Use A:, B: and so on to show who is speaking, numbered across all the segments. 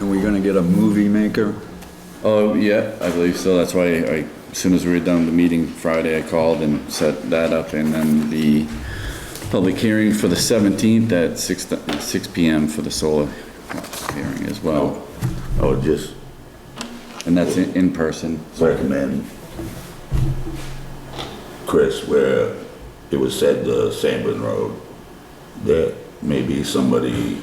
A: And we're gonna get a movie maker?
B: Oh, yeah, I believe so. That's why I, as soon as we were done the meeting Friday, I called and set that up and then the public hearing for the seventeenth at six, th- six P M for the solar hearing as well.
A: Oh.
C: I would just
B: And that's in, in person.
C: recommend, Chris, where it was said the Sanborn Road, that maybe somebody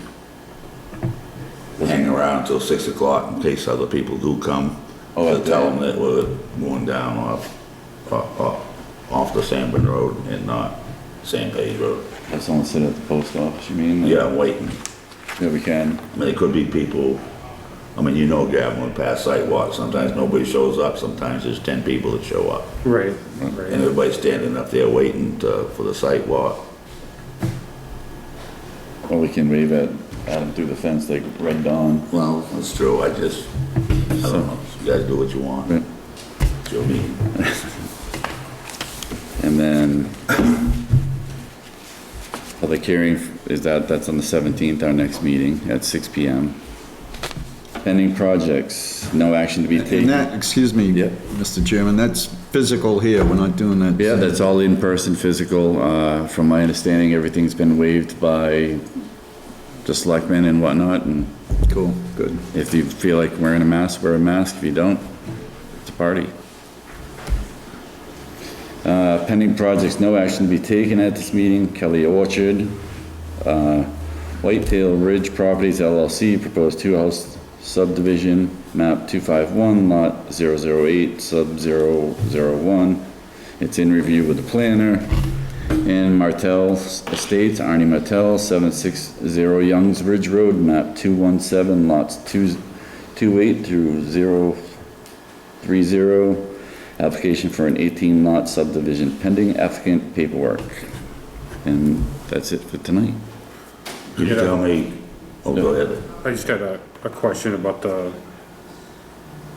C: will hang around till six o'clock in case other people do come.
B: Oh,
C: To
B: okay.
C: tell them that we're going down off, off, off- off the Sanborn Road and not San Pedro.
B: Have someone sit at the post office, you mean?
C: Yeah, I'm waiting.
B: Yeah, we can.
C: I mean, it could be people, I mean, you know, Gavin, we pass sidewalks, sometimes nobody shows up, sometimes there's ten people that show up.
D: Right,
C: And
D: right.
C: everybody's standing up there waiting to, for the site walk.
B: Or we can wave at, at them through the fence like Red Dawn.
C: Well, that's true, I just, I don't know, you guys do what you want.
B: Right.
C: It's your meeting.
B: And then public hearing is that, that's on the seventeenth, our next meeting at six P M. Pending projects, no action to be
A: And
B: taken.
A: that, excuse me,
B: Yeah.
A: Mr. Chairman, that's physical here, we're not doing that.
B: Yeah, that's all in-person physical. Uh, from my understanding, everything's been waived by the selectmen and whatnot, and
A: Cool, good.
B: if you feel like wearing a mask, wear a mask. If you don't, it's a party. Uh, pending projects, no action to be taken at this meeting. Kelly Orchard, uh, Whitetail Ridge Properties LLC, proposed two-house subdivision, map 251, lot 008, sub 001. It's in review with the planner. And Martell Estates, Arnie Martell, 760 Youngs Ridge Road, map 217, lots 2 28 through 030. Application for an 18-lot subdivision pending applicant paperwork. And that's it for tonight.
C: You
D: Yeah.
C: tell me, oh, go ahead.
D: I just got a, a question about the,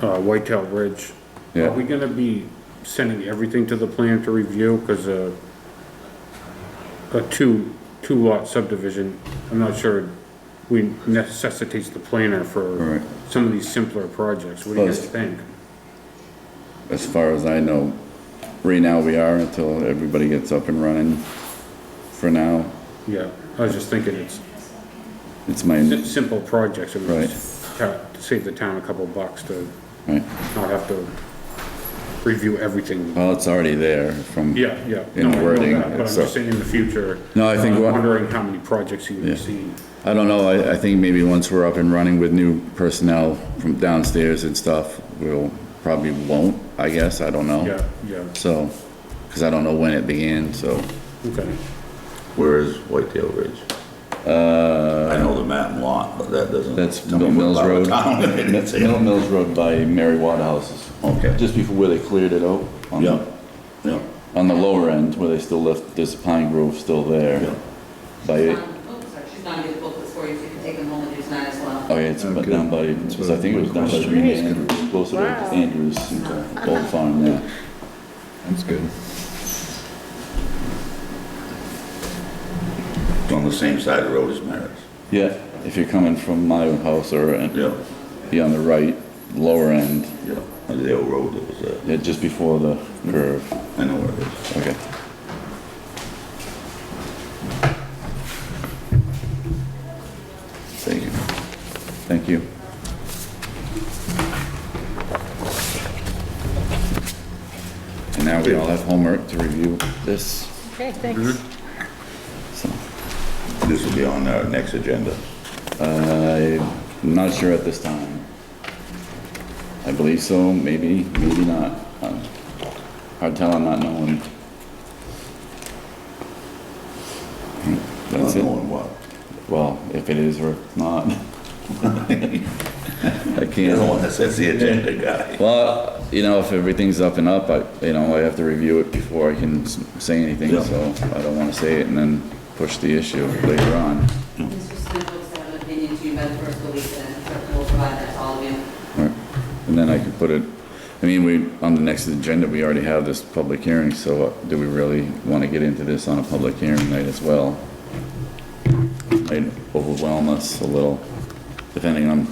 D: uh, Whitetail Ridge.
B: Yeah.
D: Are we gonna be sending everything to the plan to review, cause a, a two, two lot subdivision, I'm not sure we necessitates the planner for
B: Right.
D: some of these simpler projects, what do you guys
B: Close.
D: think?
B: As far as I know, right now we are until everybody gets up and running. For now,
D: Yeah, I was just thinking it's
B: it's my,
D: si- simple projects, I mean,
B: Right.
D: it's ta- save the town a couple bucks to
B: right.
D: not have to review everything.
B: well, it's already there from.
D: Yeah, yeah. No,
B: In
D: I know
B: wording,
D: that, But I'm
B: so-
D: just saying in the future.
B: No, I think
D: I'm
B: what-
D: Wondering how many projects you
B: Yeah.
D: would see.
B: I don't know, I, I think maybe once we're up and running with new personnel from downstairs and stuff, we'll, probably won't, I guess, I don't know.
D: Yeah, yeah,
B: So, because I don't know when it began, so,
D: okay.
C: Where is Whitetail Ridge? Uh. I know the map and lot, but that doesn't.
B: that's
C: tell me
B: Mill
C: what
B: Mills
C: part of
B: Road.
C: town it is.
B: That's Mill Mills Road by Mary Watt Houses.
C: Okay.
B: Just before where they cleared it out. on the-
C: Yeah, yeah,
B: On the lower end, where they still left, there's a pine grove still
C: yeah.
B: there. By,
E: Um, oh, sorry, she's gonna do the booklets for you, so you can take them home and do tonight as well.
B: oh yeah, it's about
A: Okay.
B: down by, because I think it was down by Green Andrews, closer to
F: Wow.
B: Andrews, and Gold Farm there.
A: That's good.
C: It's on the same side of the road as Maris.
B: Yeah, if you're coming from my house or uh,
C: Yeah,
B: be on the right, lower end,
C: yeah, Under the old road that was there.
B: yeah, just before the curve.
C: I know where it is.
B: Okay. Thank you. Thank you. And now we all have homework to review this,
F: Okay, thanks.
B: so.
C: This will be on our next agenda.
B: I'm not sure at this time. I believe so, maybe, maybe not. Um, Hard tell, I'm not knowing. That's
C: Not
B: it.
C: knowing what.
B: Well, if it is or not. I
C: You're the one
B: can't.
C: that sets the agenda, guy.
B: Well, you know, if everything's up and up, I, you know, I have to review it before I can s- say anything,
C: Yeah.
B: so I don't wanna say it and then push the issue later on.
E: Mr. Smith looks to have an opinion to you by the first of the week, and then we'll provide that to all of you.
B: Right, and then I could put it, I mean, we, on the next agenda, we already have this public hearing, so uh, do we really want to get into this on a public hearing night as well? Might overwhelm us a little, depending on